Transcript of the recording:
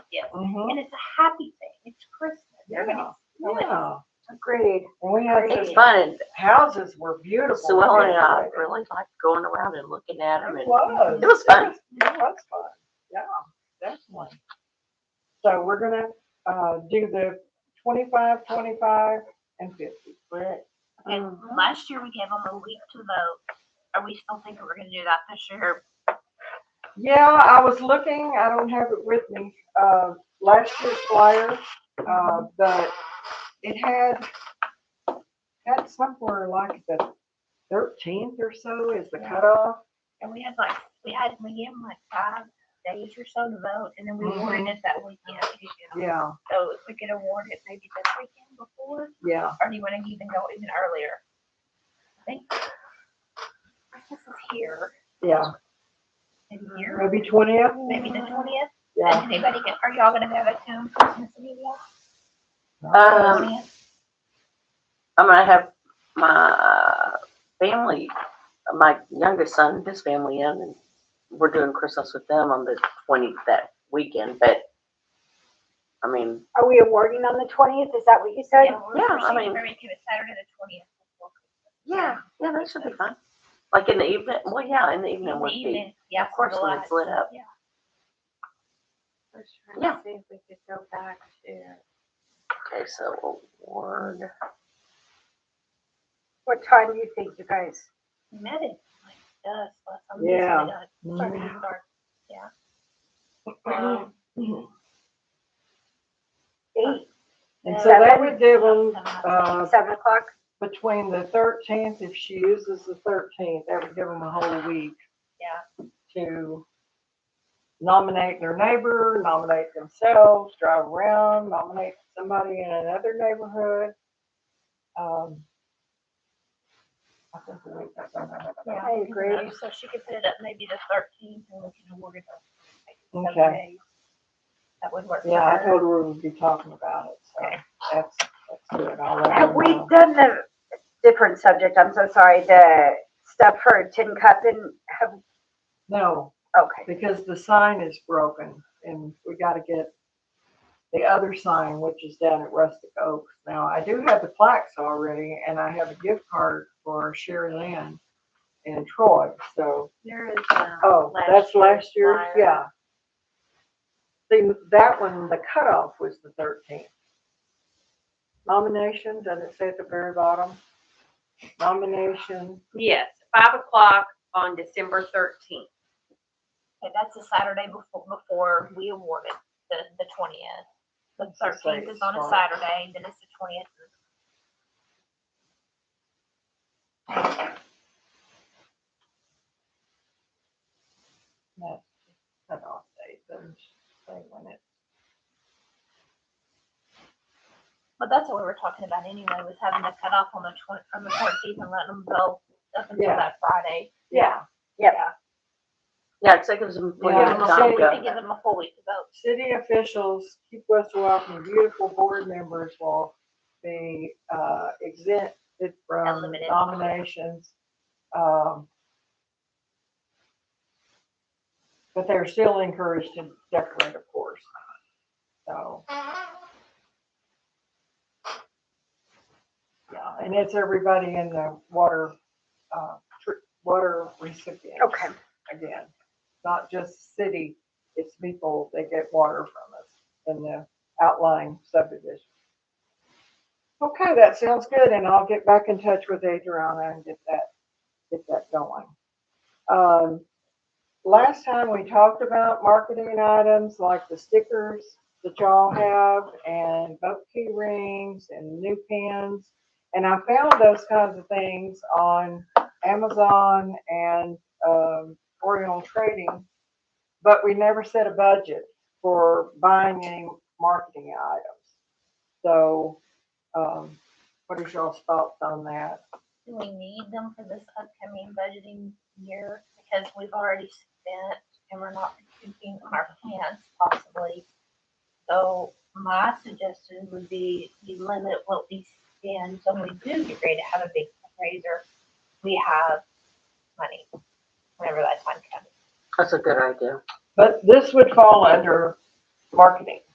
you. Mhm. And it's a happy thing. It's Christmas. Everybody's Yeah, Agreed. and we had It's these fun and houses were beautiful. Sue Ellen and I really liked going around and looking at them It and was. It was fun. It was fun, yeah, definitely. So we're gonna, uh, do the twenty-five, twenty-five, and fifty. split. And Mhm. last year we gave them a week to vote. Are we still thinking we're gonna do that this year? Yeah, I was looking, I don't have it with me, uh, last year's flyer, uh, but it had, had somewhere like the thirteenth or so is the cutoff. And we had like, we had, we gave them like five days or so to vote and then we awarded it that weekend. Yeah, So if we could award it maybe the weekend before, yeah, or do you wanna even go even earlier? I think Christmas is here, yeah, maybe here, maybe twentieth, maybe the twentieth. yeah. Anybody get, are y'all gonna have a town Christmas Eve yet? Um, 20th? I'm gonna have my uh, family, my youngest son, his family in, and we're doing Christmas with them on the twenty, that weekend, but, I mean, Are we awarding on the twentieth? Is that what you said? Yeah, we're yeah, I pushing it mean- very to Saturday the twentieth. yeah, yeah, that should be fun. Like in the evening, well, yeah, in the evening would be, Yeah, of course, the when it's lights. lit up. I was trying to Yeah. See if we could go back to. Okay, so award, What time do you think, you guys? We Met it like dusk last time. Yeah. Starting dark. Um, Um, And Eight, so that would give them, uh, seven o'clock? between the thirteenth, if she uses the thirteenth, that would give them a whole week. Yeah. To nominate their neighbor, nominate themselves, drive around, nominate somebody in another neighborhood. Um, I think we make that one. Yeah. I agree. So she could put it up maybe the thirteenth and we can award it. on, like, seven Okay. days. That would work. for Yeah, I her. told her we'd be talking about it, so that's, that's good. I'll let her Have we know. done the different subject? I'm so sorry, the stuff for Tin Cup and have, No, okay. because the sign is broken and we gotta get the other sign, which is down at Rustic Oaks. Now, I do have the plaques already and I have a gift card for Sherry Lynn and Troy, so, There is, uh, oh, that's last year's, flyer. yeah. See, that one, the cutoff was the thirteenth. Nomination, does it say at the very bottom? Nomination, Yes, five o'clock on December thirteenth. okay, that's the Saturday before, before we award it, the, the twentieth. The Let's say thirteenth is on a start. Saturday, then it's the twentieth. that's cutoff date, doesn't say when it But that's what we were talking about anyway, was having to cut off on the twen- on the fourteenth and letting them go up until Yeah. that Friday. Yeah. yeah, it's like it was a We plenty Yeah, give of them a time whole to week, yeah. we go. give them a whole week to vote. City officials, keep West Walkin, beautiful board members will be uh, exempted from Unlimited. nominations. Um, But they're still encouraged to decorate, of course. So. Yeah, and it's everybody in the water, uh, tr- water recipient Okay, again, not just city, it's people that get water from us in the outlying subdivision. Okay, that sounds good, and I'll get back in touch with Adriana and get that, get that going. Um, last time we talked about marketing items like the stickers that y'all have and boat key rings and new pins. And I found those kinds of things on Amazon and, um, Oriental Trading, but we never set a budget for buying any marketing items. So, um, what is y'all's thoughts on that? Do we need them for this upcoming budgeting year? Because we've already spent and we're not keeping on our plans possibly. So my suggestion would be we limit what we spend, so when we do get ready to have a big fundraiser, we have money, whenever that time comes. That's a good idea. But this would fall under marketing.